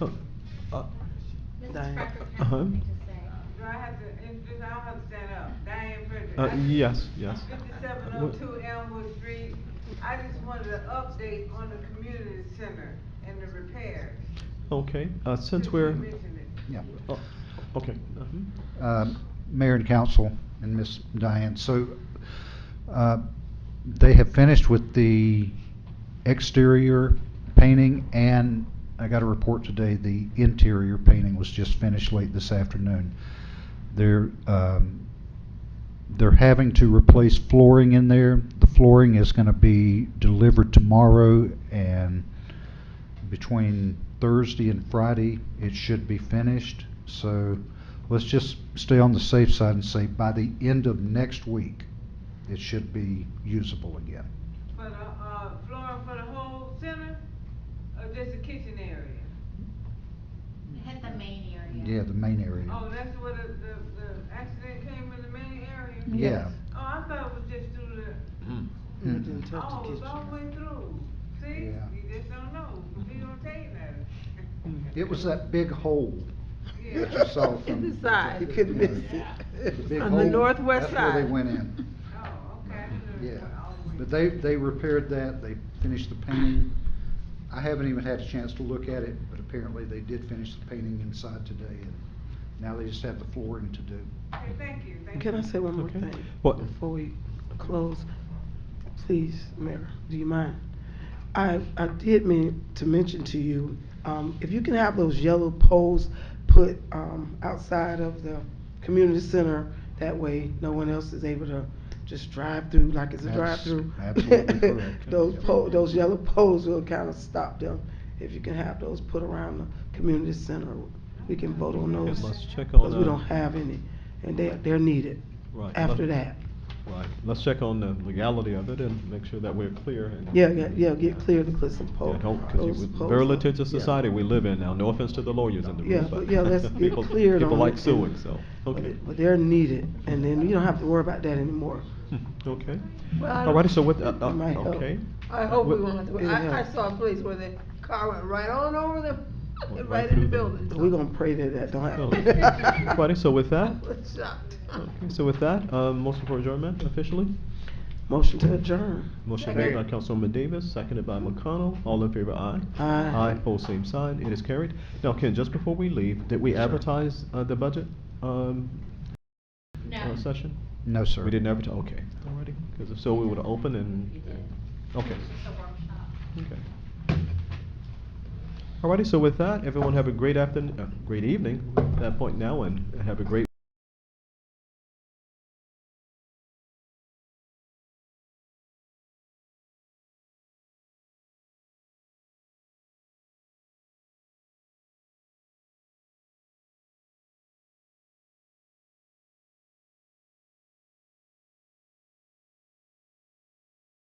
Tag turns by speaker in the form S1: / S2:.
S1: Uh, uh,
S2: Mrs.
S1: Diane,
S2: Crawford has
S1: uh-huh.
S2: something to say.
S3: Do I have to, introduce- I don't have to stand up, Diane Frederick.
S1: Uh, yes, yes.
S3: Fifty-seven oh two Elmwood Street, I just wanted an update on the community center and the repairs.
S1: Okay, uh, since
S3: you
S1: we're,
S3: mentioned it.
S4: Yeah.
S1: oh, okay. mhm.
S4: Um, Mayor and council and Miss Diane, so uh, they have finished with the exterior painting and I got a report today, the interior painting was just finished late this afternoon. They're, um, they're having to replace flooring in there. The flooring is going to be delivered tomorrow and between Thursday and Friday, it should be finished. So let's just stay on the safe side and say by the end of next week, it should be usable again.
S3: For the, uh, flooring for the whole center, or just the kitchen area?
S2: We hit the main area.
S4: Yeah, the main area.
S3: Oh, that's where the, the, the accident came in the main area?
S4: Yeah.
S3: Oh, I thought it was just through the,
S4: Mm.
S3: oh, it was all the way through, see?
S4: Yeah.
S3: You just don't know, you don't take nothing.
S4: It was that big hole
S3: Yeah. Oh,
S4: that you saw from.
S5: It's the side. You couldn't
S4: Yeah.
S5: miss it.
S4: It's a big
S5: On the
S4: hole.
S5: northwest
S4: That's where they
S5: side.
S4: went in,
S3: Oh, okay. I didn't know it
S4: yeah.
S3: went all the way
S4: But
S3: through.
S4: they, they repaired that, they finished the painting. I haven't even had a chance to look at it, but apparently they did finish the painting inside today. and Now they just have the flooring to do.
S3: Okay, thank you, thank you.
S5: Can I say one more
S1: Okay.
S5: thing?
S1: What?
S5: Before we close, please, Mayor, do you mind? I, I did mean to mention to you, um, if you can have those yellow poles put, um, outside of the community center, that way no one else is able to just drive through like it's a
S4: That's
S5: drive-through.
S4: absolutely correct.
S5: Those
S4: Yep.
S5: po, those yellow poles will kind of stop them. If you can have those put around the community center, we can vote on
S1: And
S5: those.
S1: let's check
S5: Because
S1: on,
S5: we don't
S1: uh,
S5: have any, and they, they're needed
S1: right.
S5: after
S1: let-
S5: that.
S1: Right, let's check on the legality of it and make sure that we're clear. and-
S5: Yeah, yeah, yeah, get clear to put some poles.
S1: Yeah, don't, because
S5: those poles
S1: very
S5: up.
S1: litigious
S5: Yeah.
S1: society we live in now, no offense to the lawyers in the
S5: Yeah,
S1: room, but.
S5: but yeah, let's get
S1: people-
S5: cleared on.
S1: People like
S5: it.
S1: suing, so, okay,
S5: But- But they're needed, and then you don't have to worry about that anymore.
S1: okay.
S6: Well, I
S1: All righty, so what, uh, uh,
S5: It might help.
S1: okay.
S6: I hope we
S1: Wh-
S6: won't have to,
S5: It'll
S6: I, I
S5: help.
S6: saw a place where the car went right on over
S1: Went
S6: them,
S1: right
S6: right in
S1: through
S6: the
S1: them.
S6: building.
S5: We're gonna pray that that don't happen.
S1: Oh. Righty, so with that,
S6: I was shocked.
S1: okay, so with that, um, motion for adjournment officially?
S5: Motion to adjourn.
S1: Motion made by Councilwoman Davis, seconded by McConnell. All in favor, aye.
S5: Aye.
S1: Aye, pose same sign. It is carried. Now, Ken, just before we leave, did we advertise, uh, the budget, um, uh,
S2: No.
S1: session?
S4: No, sir.
S1: We didn't advertise, okay. Alrighty, because if so, we would have opened and. Okay,
S2: It's a workshop.
S1: okay. Alrighty, so with that, everyone have a great afternoon, uh, great evening at that point now, and have a great.